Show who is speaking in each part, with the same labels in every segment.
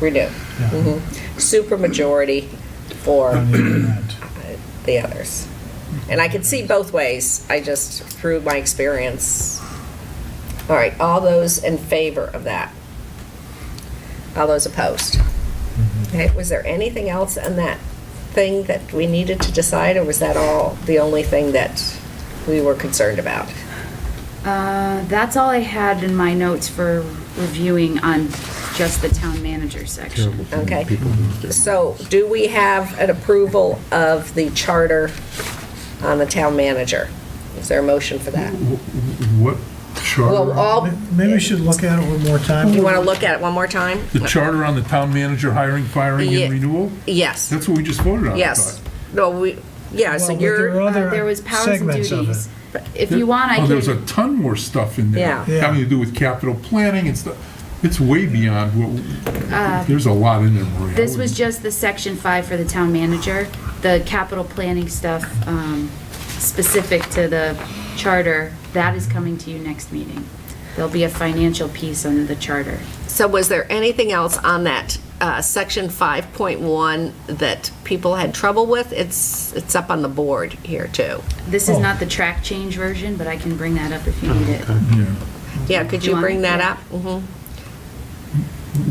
Speaker 1: We do. Mhm. Supermajority for
Speaker 2: on the internet.
Speaker 1: the others. And I can see both ways. I just, through my experience. All right, all those in favor of that? All those opposed? Okay, was there anything else in that thing that we needed to decide, or was that all, the only thing that we were concerned about?
Speaker 3: Uh, that's all I had in my notes for reviewing on just the town manager section.
Speaker 1: Okay. So do we have an approval of the charter on the town manager? Is there a motion for that? Well,
Speaker 4: What
Speaker 3: oh,
Speaker 4: charter?
Speaker 1: all,
Speaker 2: Maybe we should look at it one more time.
Speaker 1: you want to look at it one more time?
Speaker 4: The charter on the town manager hiring, firing,
Speaker 1: Yeah.
Speaker 4: and renewal?
Speaker 1: Yes,
Speaker 4: That's what we just voted on, I
Speaker 1: yes.
Speaker 4: thought.
Speaker 1: No, we, yeah, so
Speaker 2: Well, but there are
Speaker 1: you're,
Speaker 2: other
Speaker 3: Uh, There was powers and
Speaker 2: segments of it.
Speaker 3: duties. If you want, I
Speaker 4: Oh, there's a
Speaker 3: can,
Speaker 4: ton more stuff in there.
Speaker 1: Yeah.
Speaker 2: Yeah.
Speaker 4: Having to do with capital planning and stuff. It's way beyond what, there's a lot in there, Maria. I
Speaker 3: Uh, this was
Speaker 4: wouldn't-
Speaker 3: just the section five for the town manager. The capital planning stuff, um, specific to the charter, that is coming to you next meeting. There'll be a financial piece on the charter.
Speaker 1: so was there anything else on that, uh, section 5.1 that people had trouble with? It's, it's up on the board here too.
Speaker 3: This is
Speaker 2: Oh.
Speaker 3: not the track change version, but I can bring that up if you need it.
Speaker 4: Yeah.
Speaker 1: Yeah, could
Speaker 3: Do you
Speaker 1: you
Speaker 3: want
Speaker 1: bring
Speaker 3: it?
Speaker 1: that
Speaker 3: Yeah.
Speaker 1: up? Mhm.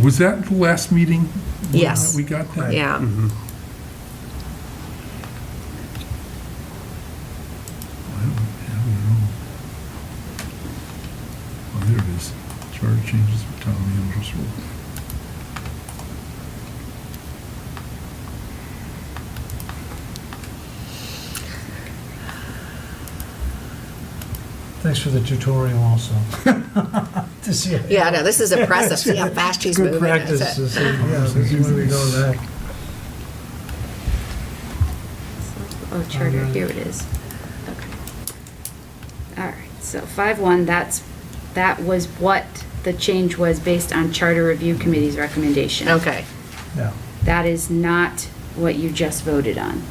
Speaker 4: Was that the last meeting?
Speaker 1: Yes.
Speaker 4: We got that?
Speaker 1: Yeah.
Speaker 2: Mm-hmm.
Speaker 4: Oh, there it is. Charter changes for town manager's role.
Speaker 2: Thanks for the tutorial also. To see-
Speaker 1: Yeah, no, this is impressive. See how fast she's moving.
Speaker 2: Good
Speaker 1: That's it.
Speaker 2: practice to see, yeah, to see where we go with that.
Speaker 3: Oh, charter, here it is. Okay. All right, so five one, that's, that was what the change was based on Charter Review Committee's recommendation.
Speaker 1: Okay.
Speaker 2: Yeah.
Speaker 3: That is not what you just voted on.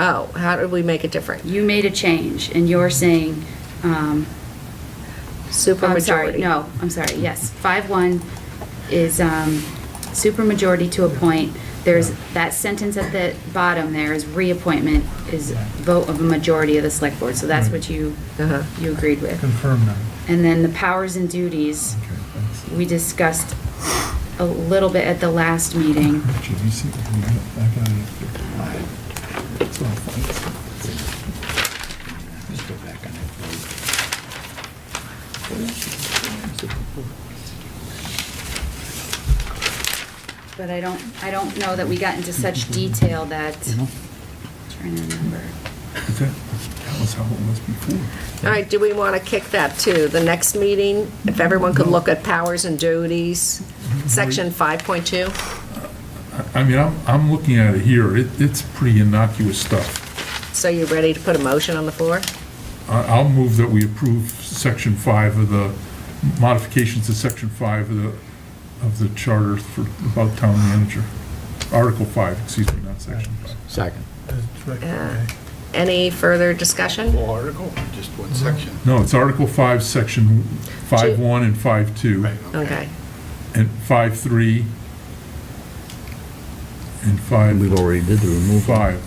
Speaker 1: Oh, how did we make it different?
Speaker 3: You made a change, and you're saying, um, I'm sorry,
Speaker 1: Supermajority.
Speaker 3: no, I'm sorry, yes. Five one is, um, supermajority to appoint. There's, that sentence at the bottom there is reappointment is vote of a majority of the select board, so that's what you,
Speaker 1: Uh-huh.
Speaker 3: you agreed with.
Speaker 2: Confirm that.
Speaker 3: And then the powers and duties,
Speaker 4: Okay, thanks.
Speaker 3: we discussed a little bit at the last meeting.
Speaker 4: Richard, you see, we got- I got it up there. It's all fine.
Speaker 5: Let's go back on that.
Speaker 3: But I don't, I don't know that we got into such detail that, trying to remember.
Speaker 4: Is that, that was how it was before.
Speaker 1: All right, do we want to kick that to the next meeting? If everyone could look at powers and duties, section 5.2?
Speaker 4: I mean, I'm, I'm looking at it here, it, it's pretty innocuous stuff.
Speaker 1: So you ready to put a motion on the floor?
Speaker 4: I, I'll move that we approve section five of the, modifications to section five of the, of the charter for, about town manager. Article five, excuse me, not section five.
Speaker 5: Second.
Speaker 2: That's right,
Speaker 1: Yeah.
Speaker 2: okay.
Speaker 1: Any further discussion?
Speaker 5: Whole article, or just one section?
Speaker 4: No, it's article five, section five
Speaker 1: Two.
Speaker 4: one and five two,
Speaker 1: Okay.
Speaker 4: and five three, and five,
Speaker 5: We've already did the removal.
Speaker 4: five,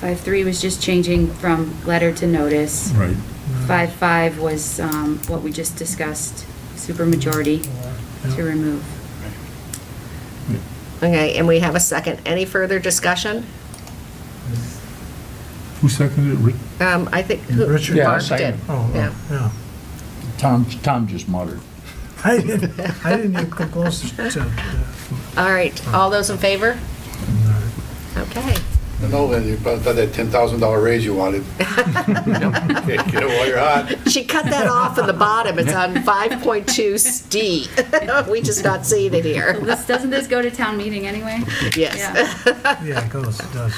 Speaker 3: Five three was just changing from letter to notice.
Speaker 4: right.
Speaker 3: Five five was, um, what we just discussed, supermajority to remove.
Speaker 1: Okay, and we have a second. Any further discussion?
Speaker 4: Who seconded it? Rick?
Speaker 1: Um, I think. who-
Speaker 2: Richard?
Speaker 5: Yeah,
Speaker 1: Mark did.
Speaker 5: second.
Speaker 2: Oh,
Speaker 1: Yeah.
Speaker 2: oh, yeah.
Speaker 5: Tom, Tom just muttered.
Speaker 2: I didn't, I didn't even come close to, to-
Speaker 1: All right, all those in favor?
Speaker 2: no.
Speaker 1: Okay.
Speaker 6: I know, and you probably thought that ten thousand dollar raise you wanted. Get it while you're hot.
Speaker 1: She cut that off in the bottom. It's on 5.2D. We just not seeing it here.
Speaker 3: This, doesn't this go to town meeting anyway?
Speaker 1: Yes.
Speaker 3: Yeah.
Speaker 2: yeah, it goes, it does.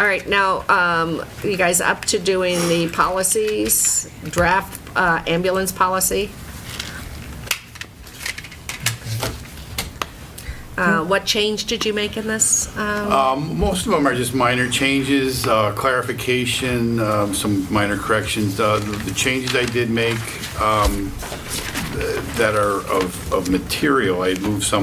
Speaker 1: All right, now, um, you guys up to doing the policies, draft uh, ambulance policy? Uh, What change did you make in this? Um,
Speaker 6: Um, Most of them are just minor changes, uh, clarification, um, some minor corrections. Uh, The the changes I did make, um, that are of, of material, I'd move some